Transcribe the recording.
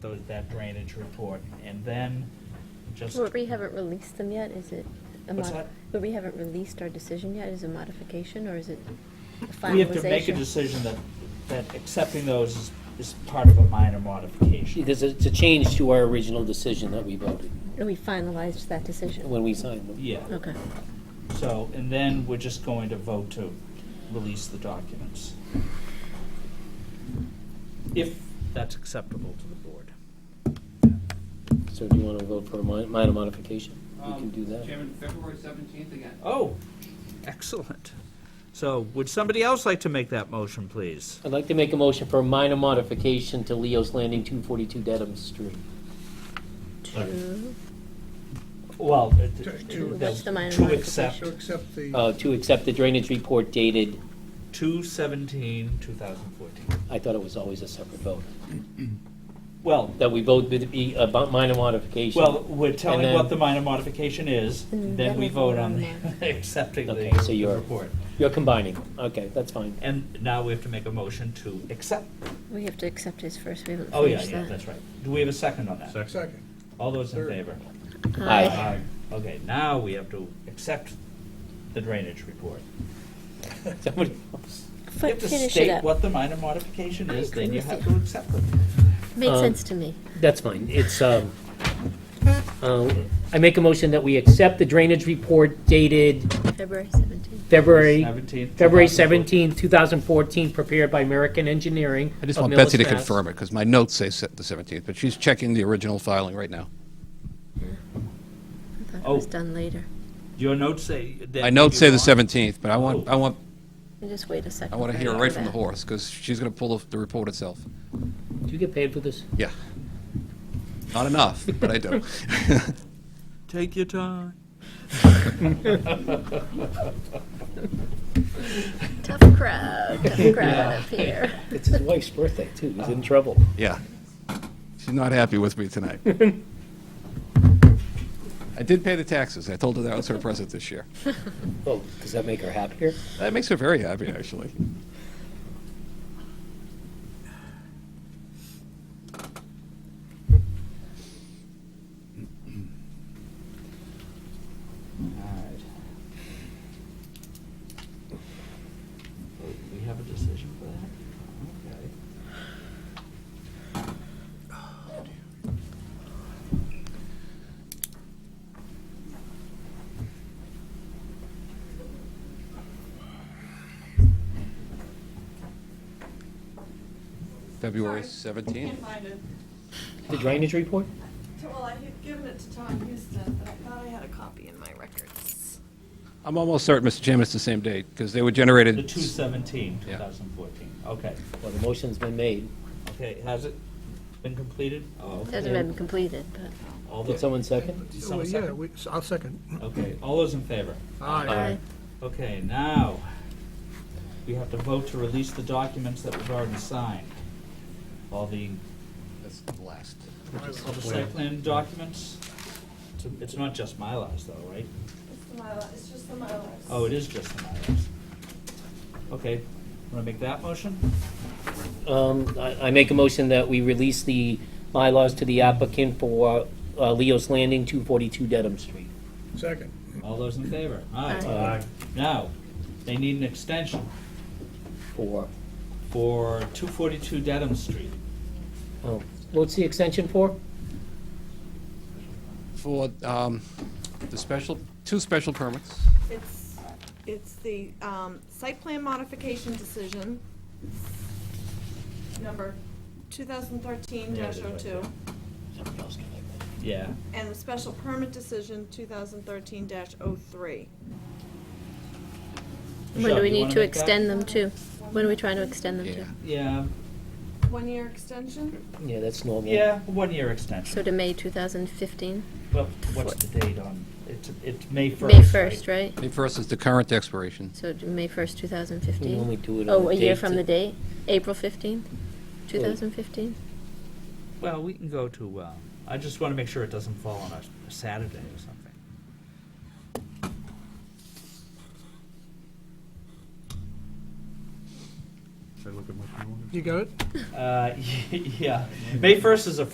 those, that drainage report, and then just. But we haven't released them yet, is it? a What's mod- that? But we haven't released our decision yet, is it a modification, or is it a finalization? We have to make a decision that, that accepting those is, is part of a minor modification. Because it's a change to our original decision that we voted No, We finalized that decision? when we signed them. Yeah, Okay. so, and then we're just going to vote to release the documents. If that's acceptable to the board. So do you want to vote for a mi- minor modification? We can Um, do that. Chairman, February seventeenth again. Oh, excellent. So would somebody else like to make that motion, please? I'd like to make a motion for a minor modification to Leo's Landing 242 Dedham Street. Two, Well, it- To- it- to- What's the minor to To accept accept the, Uh, To accept the drainage report dated, two seventeen, two thousand fourteen. I thought it was always a separate vote, Well, that we vote with the, about minor modification. well, we're telling then- what the minor modification is, And then then we we vote vote on on the, accepting the Okay, so you're- report. You're combining. them. Okay, that's fine. And now we have to make a motion to accept. we have to accept his first, we haven't Oh, yeah, finished that. yeah, that's right. Do we have a second on that? second. All those in Third. favor? Aye. Okay, now we have to accept the drainage report. Somebody else. You Fi- have to Finish it state up, what the minor modification I is, then agree you with have you. to accept it. made um, sense to me. That's fine. It's, um, uh, I make a motion that we accept the drainage report dated February 17th. February 17th, 2014. February 17, 2014, prepared by American Engineering. I just of want Betsy to Millis, Mass. confirm it, because my notes say se- the 17th, but she's checking the original filing right now. I thought Oh. it was done later. Your notes say that. My notes you say the want- 17th, but I want, Oh. I want, Just wait a second. I want to for hear that. it right from the horse, because she's going to pull the- the report itself. Do you get paid for this? Yeah. Not enough, but I do. Take your time. Tough crowd, tough crowd up here. It's his wife's birthday, too. He's in trouble. Yeah. She's not happy with me tonight. I did pay the taxes. I told her that was her present this year. Oh, does that make her happier? That makes her very happy, actually. Alright. We have a decision for that? Okay. February I can't 17th. find it. The drainage report? Well, I had given it to Tom Houston, but I thought I had a copy in my records. I'm almost certain, Mr. Chairman, it's the same date, because they were generated. The 217, Yeah. 2014. Okay, Well, the motion's been made. okay, has it been completed? Oh, It Hasn't been completed, but. All Did those, someone second? Just Well, someone Yeah, second. we, so I'll second. okay, all those in favor? Aye. Aye. Okay, now, we have to vote to release the documents that we've already signed. All the, That's the last. all the site plan documents? It's- It's not just Mylars though, right? It's the Mylar, it's just the Mylars. Oh, it is just the Mylars. Okay, wanna make that motion? Um, I, I make a motion that we release the bylaws to the applicant for uh, Leo's Landing, 242 Dedham Street. Second. All those in favor? Aye. Uh, Now, they need an extension For, for 242 Dedham Street. oh, what's the extension for? For um, the special, two special permits. It's, it's the um, site plan modification decision, number 2013-02, Somebody else can make that. Yeah, oh and the special permit decision, 2013-03. When Michelle, do we you wanna need to make that? extend them to? When are we trying to extend them to? Yeah. yeah, One-year extension? Yeah, that's normal. yeah, one-year So extension. to May 2015? Well, what's the date on, it's, it's May 1st, May 1st, right? May 1st is the current expiration. So to May 1st, We 2015? only do it on Oh, the a year date from that- the date? April 15th, 2015? Well, we can go to, uh, I just want to make sure it doesn't fall on a- a Saturday or something. You got it? Uh, Yeah, May 1st is a